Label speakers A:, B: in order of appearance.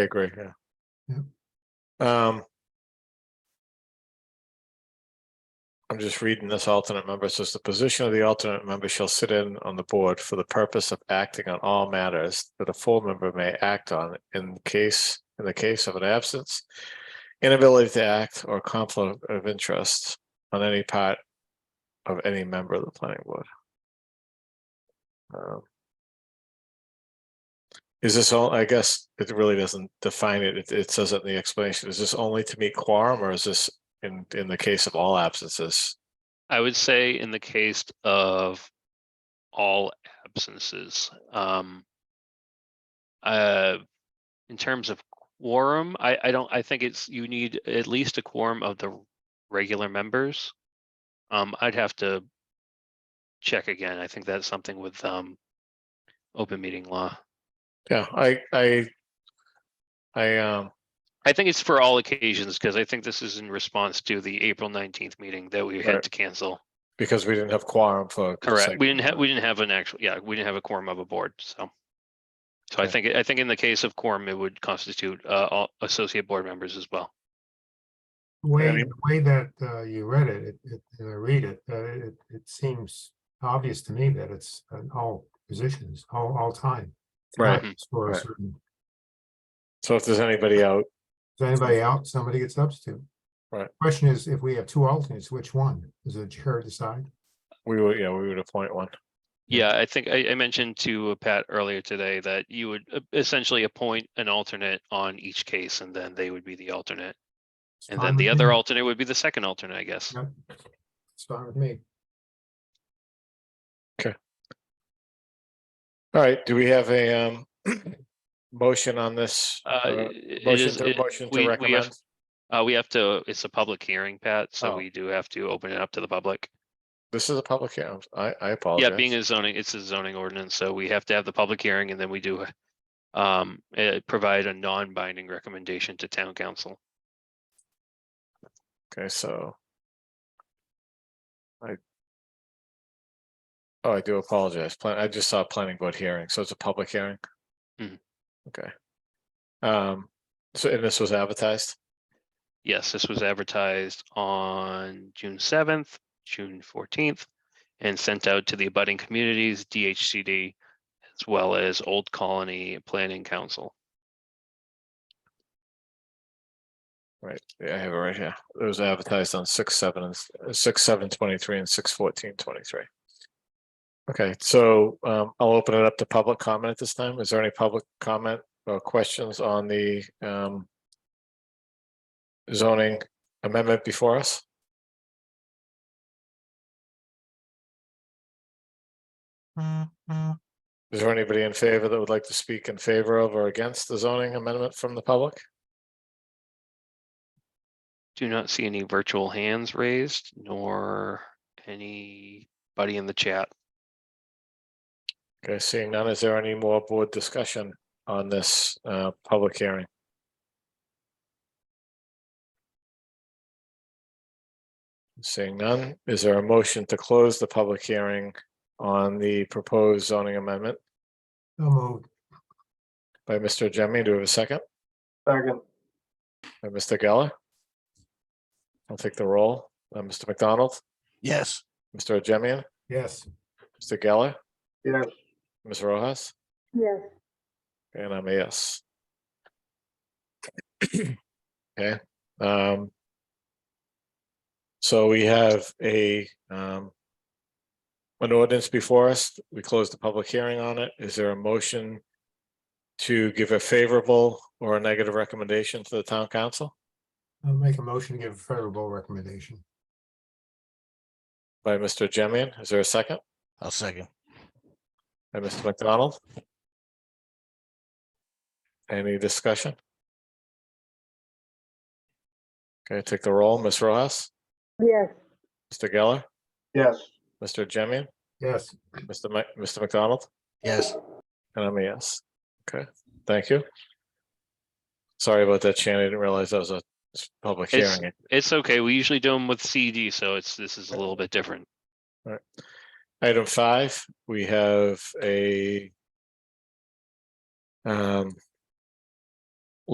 A: I agree, yeah. Um. I'm just reading this alternate member. It Says the position of the alternate member shall sit in on the board for the purpose of acting on all matters that a full member may act on in case, in the case of an absence. Inability to act or conflict of interest on any part of any member of the planning board. Um, Is this all, I guess it really doesn't define it. It, it says it in the explanation. Is this only to meet quorum or is this in, in the case of all absences?
B: I would say in the case of all absences, um. Uh, in terms of quorum, I, I don't, I think it's, you need at least a quorum of the regular members. Um, I'd have to check again. I think that's something with, um, open meeting law.
A: Yeah, I, I, I, um,
B: I think it's for all occasions because I think this is in response to the April nineteenth meeting that we
A: Right.
B: had to cancel.
A: because we didn't have quorum for.
B: Correct. We didn't have,
A: have.
B: we didn't have an actual, yeah, we didn't have a quorum of a board, so. So I
A: Okay.
B: think, I think in the case of quorum, it would constitute uh all associate board members as well.
C: The Way,
A: Any-
C: the way that uh, you read it, it, it, and I read it, uh, it, it seems obvious to me that it's in all positions, all, all time.
A: Right,
B: Mm-hmm.
C: not just For a
A: right.
C: certain,
A: so if there's anybody out,
C: is anybody out, somebody gets substitute.
A: Right.
C: Question is, if we have two alternates, which one? Does the chair decide?
A: we would, yeah, we would appoint one.
B: Yeah, I think I I mentioned to uh, Pat earlier today that you would uh, essentially appoint an alternate on each case and then they would be the alternate.
C: It's
B: And
C: fine
B: then the
C: with
B: other
C: me.
B: alternate would be the second alternate, I guess.
C: Yep. It's fine with me.
A: All right, do we have a, um, motion on this?
B: Uh,
A: Uh,
B: it
A: Motion
B: is-
A: to,
B: it-
A: motion
B: we-
A: to
B: we have-
A: recommend?
B: Uh, we have to, it's a public hearing, Pat, so
A: Oh.
B: we do have to open it up to the public.
A: This is a public hearing. I'm- I, I apologize.
B: Yeah, being a zoning, it's a zoning ordinance, so we have to have the public hearing and then we do um, uh, provide a non-binding recommendation to town council.
A: Okay, so. I. Oh, I do apologize. Plan, I just saw planning board hearing, so it's a public hearing?
B: Mhm.
A: Okay. Um, so and this was advertised?
B: Yes, this was advertised on June seventh, June fourteenth, and sent out to the abutting communities, DHCD, as well as Old Colony Planning Council.
A: Right, yeah, I have it right here. It was advertised on six, seven, and s- uh, six, seven, twenty-three and six, fourteen, twenty-three. Okay, so um, I'll open it up to public comment at this time. Is there any public comment or questions on the um. Zoning amendment before us? Is there anybody in favor that would like to speak in favor of or against the zoning amendment from the public?
B: Do not see any virtual hands raised nor anybody in the chat.
A: Okay, seeing none, is there any more board discussion on this uh public hearing? Seeing none, is there a motion to close the public hearing on the proposed zoning amendment
C: So moved.
A: by Mr. Jimmy? Do we have a second?
C: Second.
A: By Mr. Geller? I'll take the roll. Uh, Mr. McDonald,
D: Yes.
A: Mr. Jemian,
C: Yes.
A: Mr. Geller,
C: Yes.
A: Ms. Rojas,
E: Yes,
A: and I'm a yes. Okay, um. So we have a, um. An ordinance before us. We closed the public hearing on it. Is there a motion? To give a favorable or a negative recommendation to the town council
C: I'll make a motion to give a favorable recommendation.
A: by Mr. Jemian? Is there a second?
D: I'll second.
A: By Mr. McDonald? Any discussion? Okay, take the roll. Ms. Rojas,
E: yes,
A: Mr. Geller,
C: Yes.
A: Mr. Jemian,
C: Yes.
A: Mr. Mc- Mr. McDonald?
D: Yes.
A: And I'm a yes. Okay, thank you. Sorry about that, Shannon. I didn't realize that was a s- public
B: It's-
A: hearing.
B: It's okay. We usually do them with CD, so it's, this is a little bit different.
A: Item five, we have a um,